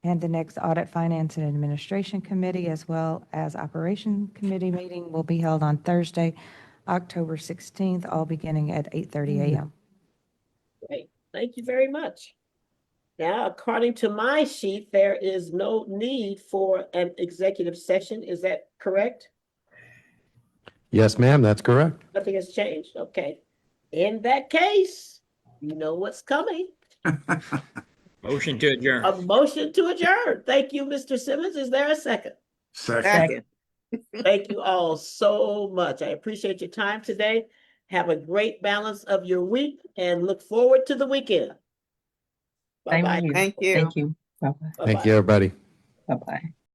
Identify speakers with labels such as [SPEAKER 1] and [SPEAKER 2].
[SPEAKER 1] And the next Audit, Finance, and Administration Committee, as well as Operation Committee meeting, will be held on Thursday, October 16th, all beginning at 8:30 a.m.
[SPEAKER 2] Great, thank you very much. Now, according to my sheet, there is no need for an executive session. Is that correct?
[SPEAKER 3] Yes, ma'am, that's correct.
[SPEAKER 2] Nothing has changed? Okay. In that case, you know what's coming.
[SPEAKER 4] Motion to adjourn.
[SPEAKER 2] A motion to adjourn. Thank you, Mr. Simmons. Is there a second?
[SPEAKER 5] Second.
[SPEAKER 6] Second.
[SPEAKER 2] Thank you all so much. I appreciate your time today. Have a great balance of your week and look forward to the weekend.
[SPEAKER 6] Same
[SPEAKER 2] Bye-bye.
[SPEAKER 6] here.
[SPEAKER 5] Thank you.
[SPEAKER 6] Thank you. Bye-bye.
[SPEAKER 3] Thank
[SPEAKER 2] Bye-bye.
[SPEAKER 3] you, everybody.
[SPEAKER 6] Bye-bye.